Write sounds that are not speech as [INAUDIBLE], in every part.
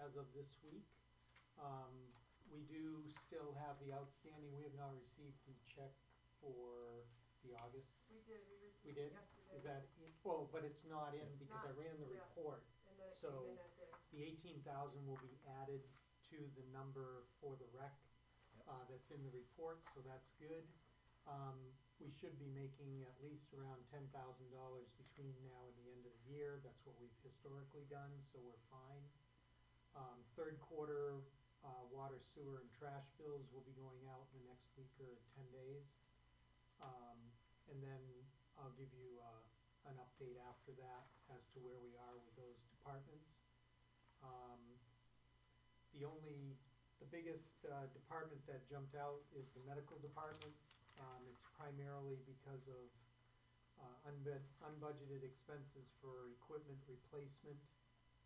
as of this week. Um, we do still have the outstanding, we have not received the check for the August. We did, we received We it did? yesterday. Is that, in- oh, but it's not in It's because I not, ran the yeah. report. And then it so- came in that day. The eighteen thousand will be added to the number for the rec, Yep. uh, that's in the report, so that's good. Um, we should be making at least around ten thousand dollars between now and the end of the year, that's what we've historically done, so we're fine. Um, third quarter, uh, water, sewer, and trash bills will be going out in the next week or ten days. Um, and then I'll give you, uh, an update after that as to where we are with those departments. Um, the only, the biggest, uh, department that jumped out is the medical department. Um, it's primarily because of, uh, unbud- unbudgeted expenses for equipment replacement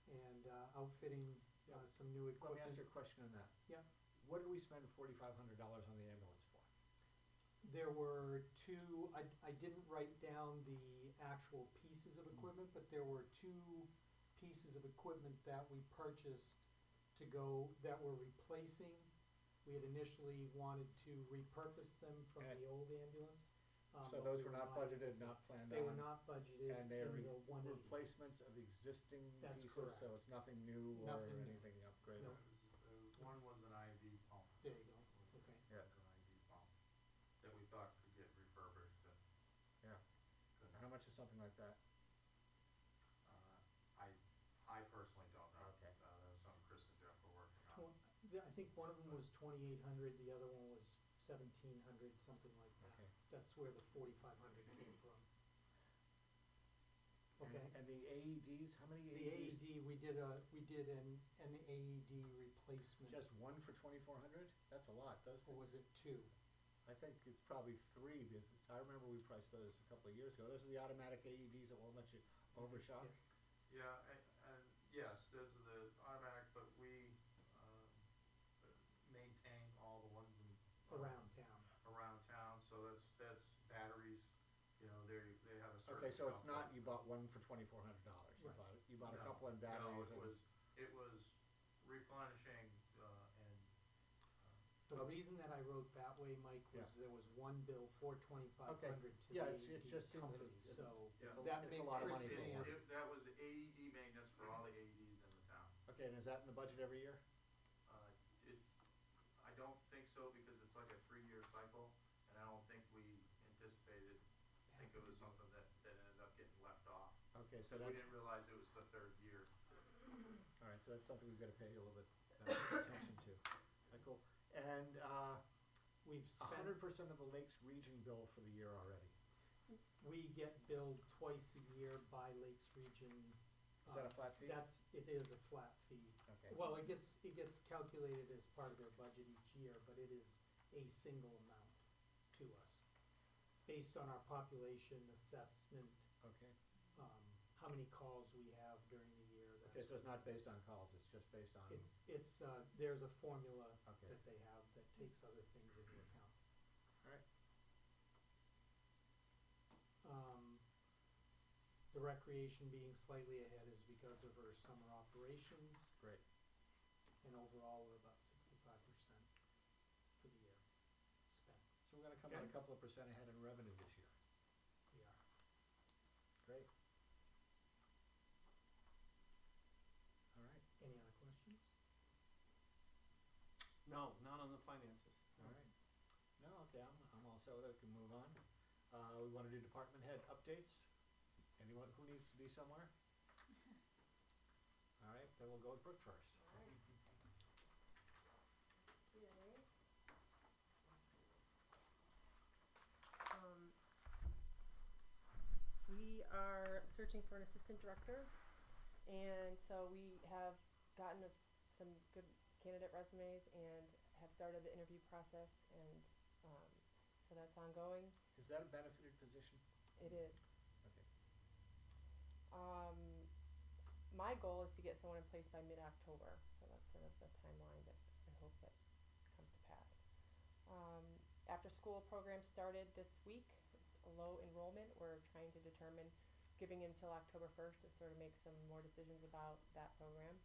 and, uh, outfitting, uh, some new Let equipment. me ask you a question on that. Yeah. What did we spend forty-five hundred dollars on the ambulance for? There were two, I, I didn't write down the actual pieces Mm. of equipment, but there were two pieces of equipment that we purchased to go, that we're replacing. We had initially wanted to repurpose them from Okay. the old ambulance. um, So but those we were not budgeted, not planned on? They were not budgeted in And they are re- the one eighty. replacements of existing That's pieces, correct. so it's nothing new or Nothing new. anything upgraded? No. Uh, One was an IV pump. There you go, okay. Yeah. An IV pump that we thought could get refurbished and. Yeah. couldn't. How much is something like that? Uh, I, I personally don't know. Okay. Uh, that was something Chris and Jeff were working on. Tw- the- I think one of them was twenty-eight hundred, the other one was seventeen hundred, something like that. Okay. That's where the forty-five hundred came from. And- Okay? And the AEDs, how many E The AEDs? AED, we did a, we did an, an AED replacement. Just one for twenty-four hundred? That's a lot, those Or E things. was it two? I think it's probably three, because I remember we priced those a couple of years ago. Those are the automatic AEDs that won't let you overshock? Yeah, and, and yes, those are the automatic, but we, um, uh, maintain all the ones in. Oh. Around town. Around town, so that's, that's batteries, you know, they, they have a certain. Okay, so it's not, amount that- you bought one for twenty-four hundred dollars, you Right. bought, it- you bought a No, couple in no, batteries it and. was, it was replenishing, uh, and, uh, The Oh. reason that I wrote that way, Mike, was there was one bill for twenty-five hundred to the Yeah, it's, AED it's just seems, company, it's, it's, so. it's Yeah. a, that it's a made lot of Chris money for Christine- It's- one. it- That was AED maintenance for all the AEDs in the town. Okay, and is that in the budget every year? Uh, it's, I don't think so because it's like a three-year cycle and I don't think we anticipated, I think it was something that, that ended up getting left off. Okay, so Because we that's, didn't realize it was the third year. all right, so that's something we've gotta pay a little bit [LAUGHS] uh, attention to. Okay, Cool. And, uh, We've a spent, hundred percent of the Lakes Region bill for the year already. we get billed twice a year by Lakes Region. Is that uh, a flat fee? That's, it is a flat fee. Okay, Well, it gets, it gets calculated as part of their budget each year, but it is a single amount to us, based on our population assessment, okay. um, how many calls we have during the year, Okay, that's, so it's not based on calls, it's just based on, it's, it's, uh, there's a formula okay, that they have that takes other things into account. Alright. Um, the recreation being slightly ahead is because of our summer operations, great. and overall, we're about sixty-five percent for the year spent, So we're gonna come out a Okay. couple of percent ahead in revenue this year. we are. Great. All right, Any other questions? No, not on the finances. all right. No, okay, I'm, I'm all set with it, can move on. Uh, we wanna do department head updates. Anyone who needs to be somewhere? All right, then we'll go with Brooke first. Alright. Yay. Um, we are searching for an assistant director, and so we have gotten a, some good candidate resumes and have started the interview process, and um, so that's ongoing. Is that a benefited position? It is. Okay. Um, my goal is to get someone in place by mid-October, so that's sort of the timeline that I hope that comes to pass. Um, after-school program started this week. It's a low enrollment. We're trying to determine, giving until October first to sort of make some more decisions about that program.